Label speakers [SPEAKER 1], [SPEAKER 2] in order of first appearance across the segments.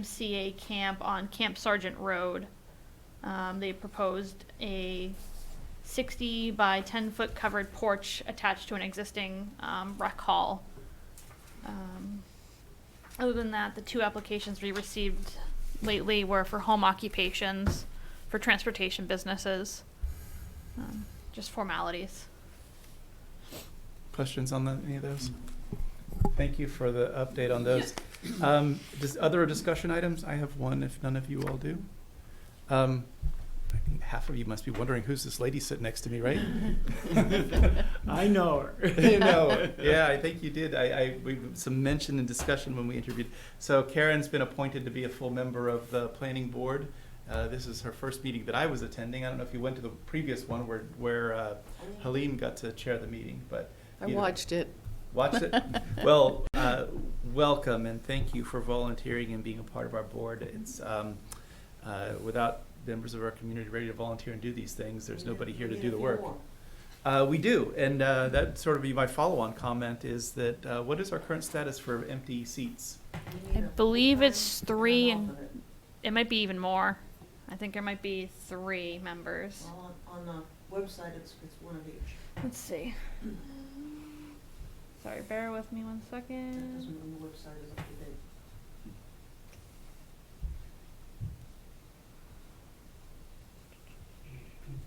[SPEAKER 1] YMCA camp on Camp Sergeant Road. Um, they proposed a sixty by ten foot covered porch attached to an existing, um, rec hall. Um, Other than that, the two applications we received lately were for home occupations, for transportation businesses, um, just formalities.
[SPEAKER 2] Questions on the- any of those? Thank you for the update on those. Um, does other discussion items? I have one if none of you all do. Um, I think half of you must be wondering who's this lady sitting next to me, right?
[SPEAKER 3] I know her.
[SPEAKER 2] you know, yeah, I think you did. I, I we some mention and discussion when we interviewed. So Karen's been appointed to be a full member of the planning board. Uh, this is her first meeting that I was attending. I don't know if you went to the previous one where where uh, Helene got to chair the meeting, but
[SPEAKER 4] I
[SPEAKER 2] either-
[SPEAKER 4] watched it.
[SPEAKER 2] Watch it. well, uh, welcome and thank you for volunteering and being a part of our board. It's um, uh, without members of our community ready to volunteer and do these things, there's nobody here to do the work. Uh, we do, and uh, that sort of be my follow-on comment is that uh, what is our current status for empty seats?
[SPEAKER 1] I believe it's three and it might be even more. I think there might be three members.
[SPEAKER 5] Well, on, on the website, it's, it's one of each.
[SPEAKER 1] Let's see. Sorry, bear with me one
[SPEAKER 5] That doesn't
[SPEAKER 1] second.
[SPEAKER 5] mean the website is up to date.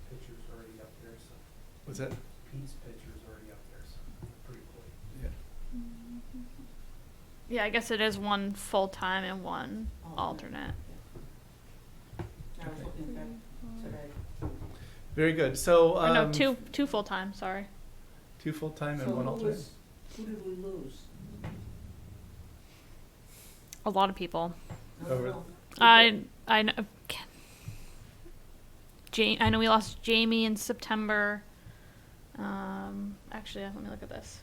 [SPEAKER 6] Picture's already up there, so
[SPEAKER 2] Was that?
[SPEAKER 6] Pete's picture's already up there, so pretty cool.
[SPEAKER 2] Yeah.
[SPEAKER 1] Yeah, I guess it is one full time and one alternate.
[SPEAKER 5] I was looking at that today.
[SPEAKER 2] Very good. So
[SPEAKER 1] Or
[SPEAKER 2] um,
[SPEAKER 1] Oh, no, two two full time. Sorry.
[SPEAKER 2] two full-time and
[SPEAKER 5] So
[SPEAKER 2] one
[SPEAKER 5] who
[SPEAKER 2] alternate.
[SPEAKER 5] was- Who did we lose?
[SPEAKER 1] A lot of people.
[SPEAKER 5] I don't
[SPEAKER 2] Over-
[SPEAKER 5] know.
[SPEAKER 1] I I know. Ja- I know we lost Jamie in September. Um, actually, let me look at this.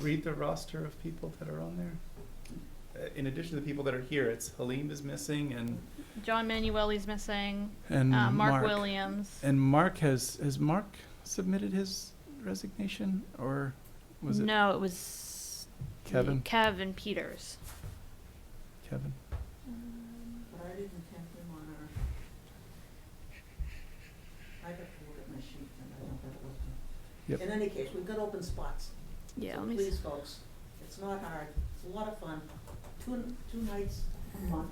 [SPEAKER 2] Read the roster of people that are on there. Uh, in addition to the people that are here, it's Halim is missing and
[SPEAKER 1] John Manueli's missing.
[SPEAKER 2] and
[SPEAKER 1] Uh, Mark Williams.
[SPEAKER 2] Mm, And Mark has has Mark submitted his resignation or was it
[SPEAKER 1] No, it was
[SPEAKER 2] Kevin?
[SPEAKER 1] Kevin Peters.
[SPEAKER 2] Kevin?
[SPEAKER 5] But I didn't have him on our. I got to look at my sheet and I don't have it with me.
[SPEAKER 2] Yep.
[SPEAKER 5] In any case, we've got open spots.
[SPEAKER 1] Yeah,
[SPEAKER 5] So
[SPEAKER 1] let me see.
[SPEAKER 5] Please, folks, it's not hard. It's a lot of fun. Two, two nights a month.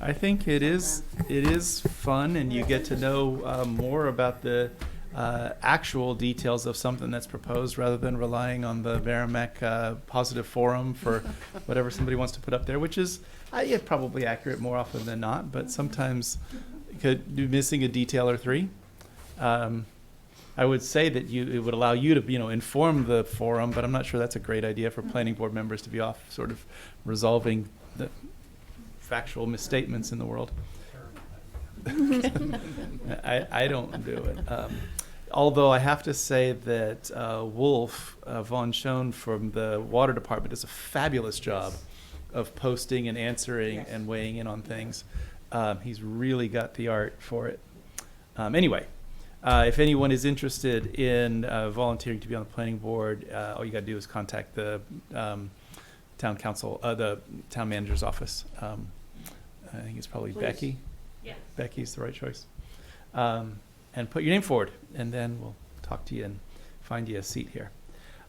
[SPEAKER 2] I think it is it is fun, and you get to know uh, more about the uh, actual details of something that's proposed, rather than relying on the Merrimack uh, Positive Forum for whatever somebody wants to put up there, which is uh, yeah, probably accurate more often than not, but sometimes you could be missing a detail or three. Um, I would say that you it would allow you to you know inform the forum, but I'm not sure that's a great idea for planning board members to be off sort of resolving the factual misstatements in the world.
[SPEAKER 6] Terrible.
[SPEAKER 2] I, I don't do it. Um, although I have to say that uh, Wolf uh, Von Schoen from the water department does a fabulous job of posting and answering
[SPEAKER 5] Yes.
[SPEAKER 2] and weighing in on things. Um, he's really got the art for it. Um, anyway, uh, if anyone is interested in uh, volunteering to be on the planning board, uh, all you got to do is contact the um, town council, uh, the town manager's office. Um, I think it's probably
[SPEAKER 5] Please.
[SPEAKER 2] Becky. Becky's the right choice. Um, and put your name forward, and then we'll talk to you and find you a seat here.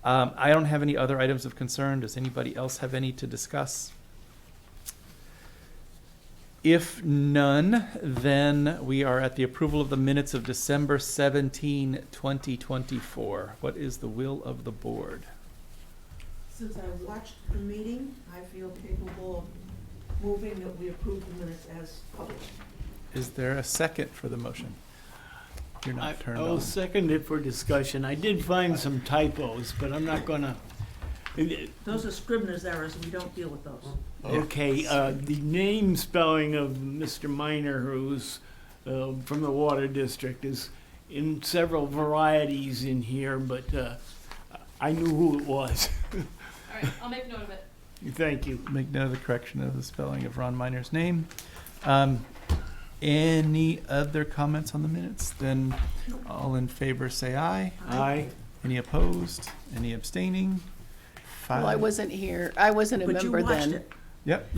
[SPEAKER 2] Um, I don't have any other items of concern. Does anybody else have any to discuss? If none, then we are at the approval of the minutes of December 17, 2024. What is the will of the board?
[SPEAKER 5] Since I watched the meeting, I feel capable of moving that we approve the minutes as published.
[SPEAKER 2] Is there a second for the motion? You're
[SPEAKER 3] I- oh,
[SPEAKER 2] not turned
[SPEAKER 3] I'll
[SPEAKER 2] on.
[SPEAKER 3] second it for discussion. I did find some typos, but I'm not gonna.
[SPEAKER 5] Those are Scribner's errors, we don't deal with those.
[SPEAKER 3] Okay, uh, the name spelling of Mr. Minor, who's uh, from the Water District, is in several varieties in here, but uh, I knew who it was.
[SPEAKER 1] All right, I'll make note of it.
[SPEAKER 3] Thank you.
[SPEAKER 2] make note of the correction of the spelling of Ron Miner's name. Um, any other comments on the minutes? Then all in favor say aye.
[SPEAKER 3] Aye.
[SPEAKER 2] Any opposed? Any abstaining?
[SPEAKER 4] Well, I
[SPEAKER 2] Five-
[SPEAKER 4] wasn't here. I wasn't a
[SPEAKER 5] But you
[SPEAKER 4] member then.
[SPEAKER 5] watched it.
[SPEAKER 2] Yep,